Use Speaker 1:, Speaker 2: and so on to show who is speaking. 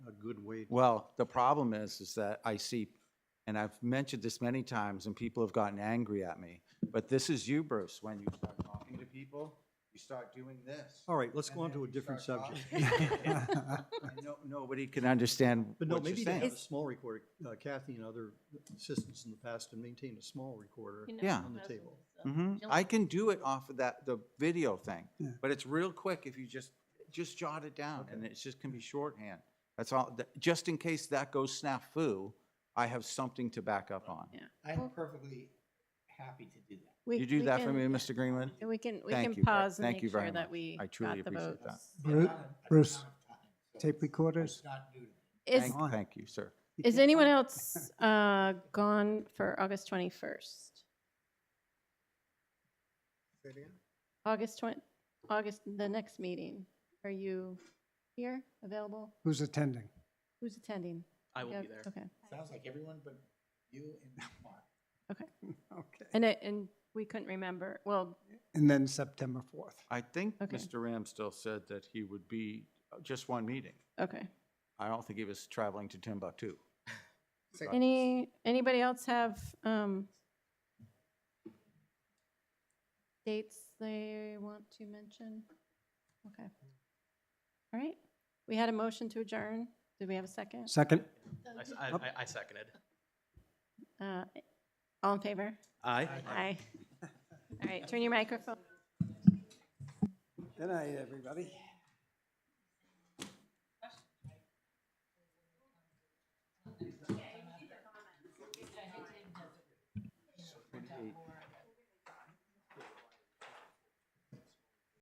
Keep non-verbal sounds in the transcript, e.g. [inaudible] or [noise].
Speaker 1: good way.
Speaker 2: Well, the problem is, is that I see, and I've mentioned this many times, and people have gotten angry at me, but this is you, Bruce, when you start talking to people, you start doing
Speaker 1: [laughs]
Speaker 2: this.
Speaker 1: All right, let's
Speaker 2: and
Speaker 1: go on
Speaker 2: then
Speaker 1: to a
Speaker 2: you
Speaker 1: different
Speaker 2: start
Speaker 1: subject.
Speaker 2: talking, and no- Nobody can understand
Speaker 1: [laughs] But no,
Speaker 2: what you're
Speaker 1: maybe they have
Speaker 2: saying.
Speaker 1: a small recorder. Uh, Kathy and other assistants in the past have maintained a small recorder.
Speaker 3: You know,
Speaker 2: Yeah.
Speaker 1: On the
Speaker 3: thousands
Speaker 1: table.
Speaker 3: of
Speaker 2: Mhm.
Speaker 3: Jill-
Speaker 2: I can do it off of that, the video thing,
Speaker 4: Yeah.
Speaker 2: but it's real quick if you just, just jot it down, and it's just can be shorthand. That's all, th- just in case that goes snafu, I have something to back up on.
Speaker 5: I'm perfectly happy to do that.
Speaker 3: We-
Speaker 2: Mm-hmm. You do
Speaker 3: we
Speaker 2: that for
Speaker 3: can-
Speaker 2: me, Mr. Greenwood?
Speaker 3: We can, we
Speaker 2: Thank
Speaker 3: can
Speaker 2: you very-
Speaker 3: pause and
Speaker 2: thank
Speaker 3: make
Speaker 2: you very
Speaker 3: sure that
Speaker 2: much.
Speaker 3: we
Speaker 2: I truly
Speaker 3: got the
Speaker 2: appreciate that.
Speaker 3: votes.
Speaker 4: Bru-
Speaker 5: Not a- a
Speaker 4: Bruce,
Speaker 5: ton of time, so
Speaker 4: Tape recorders?
Speaker 5: It's not new to me.
Speaker 3: Is,
Speaker 2: Thank,
Speaker 4: on.
Speaker 2: thank you, sir.
Speaker 4: You
Speaker 3: is
Speaker 4: can't-
Speaker 3: anyone else uh, gone for August 21st? August 20, August, the next meeting. Are you here, available?
Speaker 4: Who's attending?
Speaker 3: Who's attending?
Speaker 6: I will
Speaker 3: Yeah,
Speaker 6: be there.
Speaker 3: Okay.
Speaker 5: Sounds like everyone but you and Mark.
Speaker 4: Okay.
Speaker 3: And, I- and we couldn't remember, well,
Speaker 4: And then September 4th.
Speaker 2: I think
Speaker 3: Okay.
Speaker 2: Mr. Ram still said that he would be uh, just one meeting.
Speaker 3: okay.
Speaker 2: I don't think he was traveling to Timbuktu.
Speaker 3: Any, anybody else have um, dates they want to mention? Okay. All right. We had a motion to adjourn. Did we have a second?
Speaker 4: Second?
Speaker 6: I s- I,
Speaker 4: Up.
Speaker 6: I- I seconded.
Speaker 3: Uh, All in favor?
Speaker 6: Aye.
Speaker 3: Aye. All right, turn your microphone.
Speaker 4: Good night, everybody.